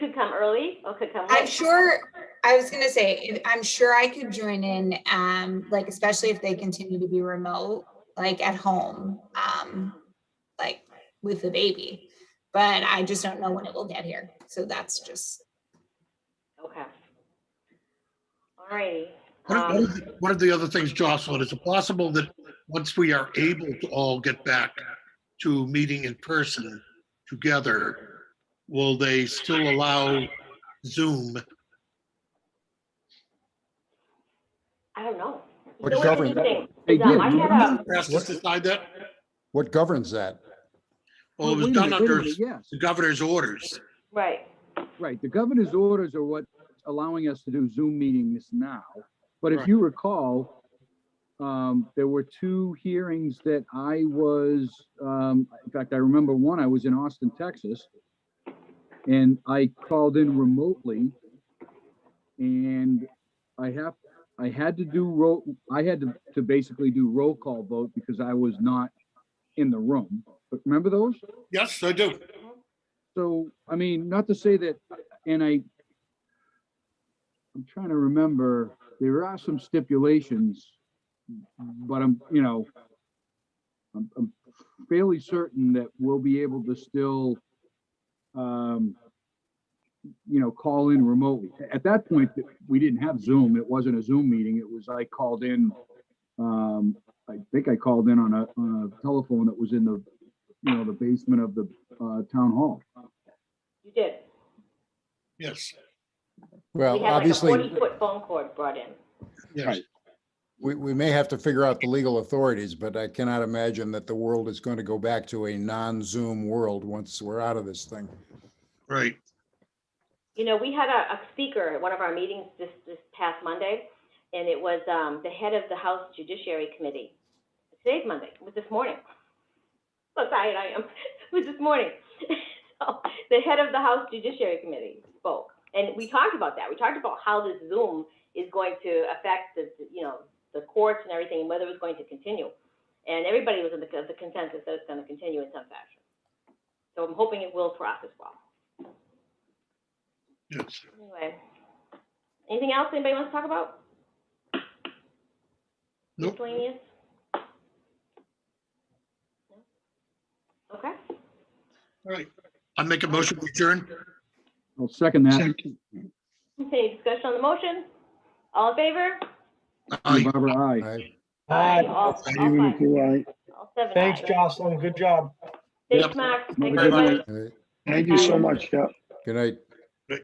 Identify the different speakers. Speaker 1: come early or could come
Speaker 2: I'm
Speaker 1: late.
Speaker 2: sure, I was gonna say, if- I'm sure I could join in, um, like especially if they continue to be remote, like at home, um, like with the baby. But I just don't know when it will get here. So that's just,
Speaker 1: Okay. All righty.
Speaker 3: One of- one
Speaker 1: Um,
Speaker 3: of the- one of the other things, Jocelyn, is it possible that once we are able to all get back to meeting in person together, will they still allow Zoom?
Speaker 1: I don't know.
Speaker 4: What
Speaker 1: You know
Speaker 4: government-
Speaker 1: interesting
Speaker 5: They
Speaker 1: is, um,
Speaker 5: did.
Speaker 1: I had a,
Speaker 3: Ask us to decide that?
Speaker 4: What governs that?
Speaker 3: Well, it was
Speaker 5: Wait a
Speaker 3: done
Speaker 5: minute, wait a
Speaker 3: under
Speaker 5: minute, Yes,
Speaker 3: the governor's orders.
Speaker 1: right,
Speaker 5: right. The governor's orders are what's allowing us to do Zoom meetings now. But if
Speaker 3: Right.
Speaker 5: you recall, um, there were two hearings that I was, um, in fact, I remember one, I was in Austin, Texas. And I called in remotely. And I have, I had to do roll, I had to, to basically do roll call vote because I was not in the room. But remember those?
Speaker 3: Yes, I do.
Speaker 5: So, I mean, not to say that, and I, I'm trying to remember, there are some stipulations, but I'm, you know, I'm, I'm fairly certain that we'll be able to still, um, you know, call in remotely. At that point, we didn't have Zoom. It wasn't a Zoom meeting. It was, I called in, um, I think I called in on a, on a telephone that was in the, you know, the basement of the uh, town hall.
Speaker 1: you did.
Speaker 3: Yes,
Speaker 1: We
Speaker 4: Well,
Speaker 1: had like a
Speaker 4: obviously,
Speaker 1: forty-foot phone cord brought in.
Speaker 3: yes.
Speaker 5: Right.
Speaker 4: we, we may have to figure out the legal authorities, but I cannot imagine that the world is going to go back to a non-Zoom world once we're out of this thing.
Speaker 3: Right.
Speaker 1: You know, we had a, a speaker at one of our meetings this, this past Monday, and it was, um, the head of the House Judiciary Committee. Today's Monday, it was this morning. So tired I am, it was this morning. So, the head of the House Judiciary Committee spoke, and we talked about that. We talked about how this Zoom is going to affect the, the, you know, the courts and everything, and whether it's going to continue. And everybody was in the, of the consensus that it's gonna continue in some fashion. So I'm hoping it will for us as well.
Speaker 3: Yes.
Speaker 1: Anyway, anything else anybody wants to talk about?
Speaker 3: Nope.
Speaker 1: Miscellaneous? No? Okay,
Speaker 3: All right. I make a motion to adjourn.
Speaker 5: I'll second that.
Speaker 1: any discussion on the motion? All in favor?
Speaker 3: Aye.
Speaker 5: Barbara, aye.
Speaker 4: I-
Speaker 6: Hi,
Speaker 1: All, all
Speaker 5: Even if
Speaker 1: five,
Speaker 5: you aye.
Speaker 1: all seven.
Speaker 6: thanks,
Speaker 1: ayes.
Speaker 6: Jocelyn. Good job.
Speaker 1: Thanks,
Speaker 3: Yep.
Speaker 1: Mark. Thanks,
Speaker 3: Very much.
Speaker 1: everybody.
Speaker 4: I-
Speaker 6: Thank
Speaker 1: you so
Speaker 6: much, Jeff.
Speaker 4: Good night.